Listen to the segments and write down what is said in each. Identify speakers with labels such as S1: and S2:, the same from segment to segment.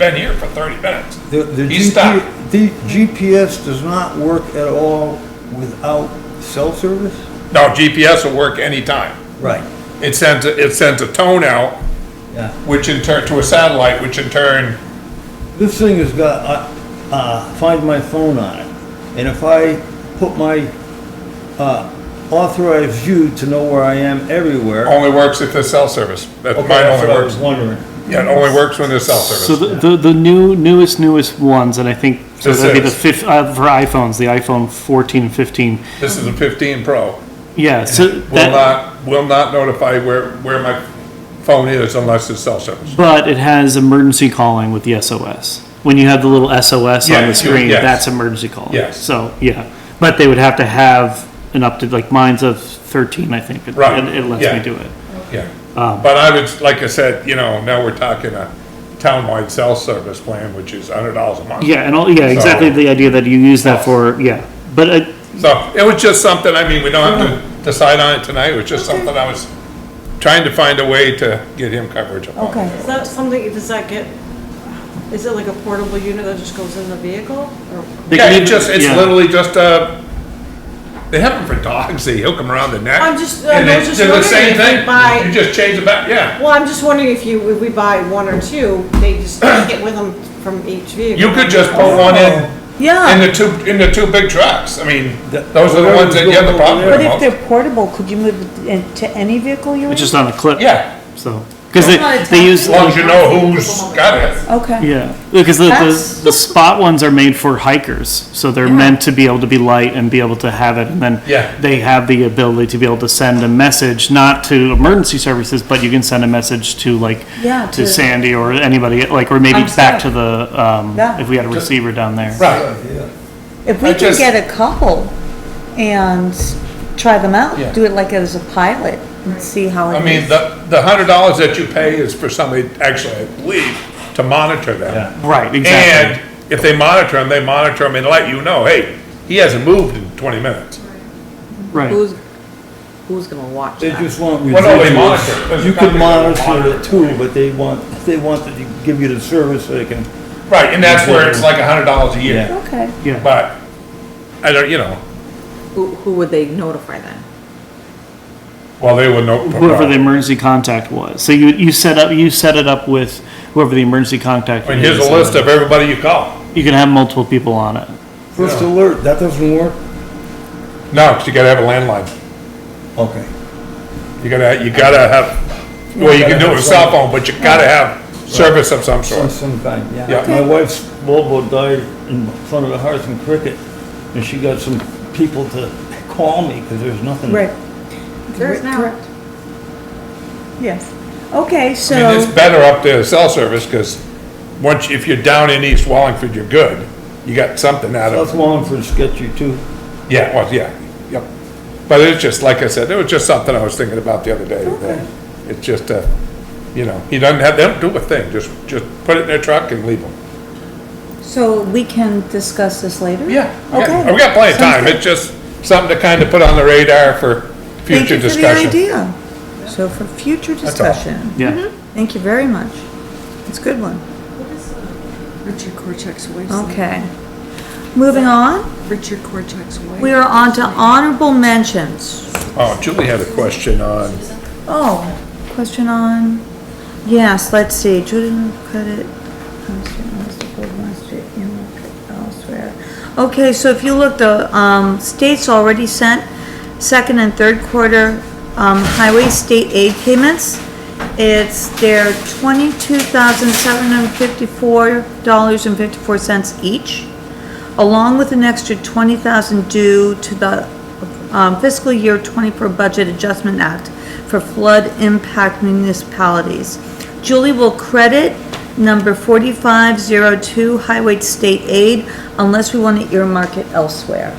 S1: been here for thirty minutes.
S2: The, the
S1: He
S2: GP
S1: stopped.
S2: The GPS does not work at all without cell service?
S1: No, GPS will work anytime.
S2: Right,
S1: It sends, a- it sends a tone out,
S2: yeah.
S1: which in turn, to a satellite, which in turn,
S2: This thing has got, uh, uh, find my phone on it. And if I put my, uh, authorized view to know where I am everywhere.
S1: only works if there's cell service. That
S2: Okay,
S1: Oh, mine
S2: that's
S1: only
S2: what I was
S1: works,
S2: wondering.
S1: yeah, it only works when there's cell
S3: So
S1: service.
S3: the, the, the new, newest, newest ones, and I think, so
S1: This
S3: that'd be the
S1: is-
S3: fifth, uh, for iPhones, the iPhone 14, 15.
S1: This is a fifteen Pro.
S3: Yeah, so
S1: Will
S3: that,
S1: not, will not notify where, where my phone is unless there's cell service.
S3: but it has emergency calling with the SOS. When you have the little SOS
S1: Yeah,
S3: on
S1: you-
S3: the screen,
S1: yes.
S3: that's emergency calling.
S1: Yes.
S3: So, yeah, but they would have to have an up to, like mine's of 13, I think. It-
S1: Right,
S3: It it lets
S1: yeah.
S3: me do it.
S1: Yeah.
S3: Ah.
S1: But I would, like I said, you know, now we're talking a townwide cell service plan, which is hundred dollars a month.
S3: Yeah, and all, yeah, exactly the idea that you use that for, yeah. But, uh,
S1: So it was just something, I mean, we don't have to decide on it tonight, it was just something I was trying to find a way to get him coverage upon.
S4: Okay.
S5: Is that something, does that get, is it like a portable unit that just goes in the vehicle? Or
S3: they
S1: Yeah,
S3: can
S1: it
S3: even-
S1: just, it's
S3: yeah.
S1: literally just, uh, they have them for dogs, they hook them around the neck.
S5: I'm just- uh, I
S1: and
S5: was
S1: they-
S5: just
S1: they're the
S5: wondering
S1: same
S5: if they
S1: thing.
S5: buy-
S1: You just change the back, yeah.
S5: Well, I'm just wondering if you, if we buy one or two, they just take it with them from each vehicle.
S1: You could just
S5: Oh.
S1: put one in, in
S4: Yeah,
S1: the two, in the two big trucks, I mean,
S2: That-
S1: those are the ones that you have the problem with
S4: but
S1: the
S4: if
S1: most.
S4: they're portable, could you move it in- to any vehicle you're in?
S3: It's just on a clip.
S1: Yeah,
S3: So, because they,
S5: not a
S3: they use.
S1: as long as you know who's got it.
S4: Okay,
S3: Yeah, because the,
S5: That's-
S3: the, the spot ones are made for hikers, so they're meant to be able to be light and be able to have it, and then
S1: Yeah.
S3: they have the ability to be able to send a message, not to emergency services, but you can send a message to like
S4: Yeah,
S3: to
S4: to-
S3: Sandy or anybody, like, or maybe
S4: I'm
S3: back to
S4: sorry.
S3: the um,
S4: Yeah.
S3: if we had a receiver down there.
S1: Right.
S4: if
S1: I
S4: we could
S1: just-
S4: get a couple and try them
S1: Yeah.
S4: out, do it like as a pilot and see how
S1: I
S4: it
S1: mean,
S4: is.
S1: the, the hundred dollars that you pay is for somebody, actually, I believe, to monitor them.
S3: Right, exactly.
S1: And if they monitor them, they monitor them and let you know, hey, he hasn't moved in twenty minutes.
S3: right.
S5: Who's, who's gonna watch
S2: They
S5: that?
S2: just want
S1: Well, no, they
S2: residuals.
S1: monitor it. There's
S2: You
S1: gotta
S2: could
S1: be a
S2: monitor
S1: monitor.
S2: it too, but they want, they want to give you the service so they can,
S1: Right, and that's where it's like a hundred dollars a year,
S2: Yeah.
S4: Okay,
S3: Yeah,
S1: but, I don't, you know,
S6: Who, who would they notify then?
S1: well, they would know.
S3: whoever the emergency contact was. So you you set up you set it up with whoever the emergency contact.
S1: I mean, here's
S3: is,
S1: a
S3: and
S1: list of everybody you call.
S3: You can have multiple people on it.
S2: first
S1: Yeah.
S2: alert, that doesn't work?
S1: No, 'cause you gotta have a landline.
S2: Okay.
S1: You gotta, you gotta have, well, you can do it with a cell phone, but you gotta have service of some
S2: Some,
S1: sort.
S2: some kind, yeah.
S1: Yeah.
S2: My wife's Volvo died in front of the house in Cricket, and she got some people to call me, because there's
S1: Hmm.
S2: nothing.
S4: right,
S6: There's now.
S4: yes. Okay, so.
S1: I mean, it's better up there, cell service, because once, if you're down in East Wallingford, you're good. You got something out
S2: South
S1: of,
S2: Wallingford's sketchy too.
S1: yeah, well, yeah, yep. But it's just, like I said, it was just something I was thinking about the other day. that It's just, uh, you know, he doesn't have, they don't do a thing, just, just put it in their truck and leave them.
S4: So we can discuss this later? Okay.
S1: We've got plenty of
S4: Sounds
S1: time,
S4: good.
S1: it's just something to kind of put on the radar for
S4: Thank
S1: future
S4: you for the
S1: discussion.
S4: idea. So for future
S1: all. Mm-hmm.
S4: discussion.
S3: Yeah.
S4: Thank you very much. It's a good one.
S5: Richard Korchak's waste.
S4: Okay. Moving on,
S5: Richard Korchak's waste.
S4: we are on to honorable mentions.
S1: Oh, Julie had a question on,
S4: Oh, question on, yes, let's see, children credit. Home Street, Main Street, Gold Main Street, Inlet, elsewhere. Okay, so if you look, the, um, states already sent second and third quarter, um, highway state aid payments. It's their twenty-two thousand seven hundred fifty-four dollars and fifty-four cents each along with an extra 20,000 due to the um, fiscal year 24 Budget Adjustment Act for flood impact municipalities. Julie will credit number 4502 Highway State Aid unless we want to earmark it elsewhere.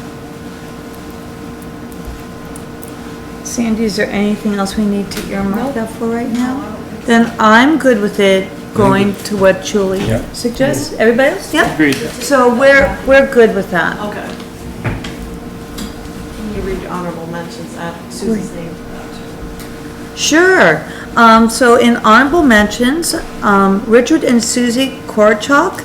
S4: Sandy, is there anything else we need to earmark that for right now? Then I'm good with it going to what Julie
S1: Yeah.
S4: suggests. Everybody else? Yep.
S3: Agreed.
S4: So we're, we're good with that.
S5: Okay. Uh, Can you read honorable mentions at Susan's name?
S4: Sure. Um, so in honorable mentions, um, Richard and Susie Korchak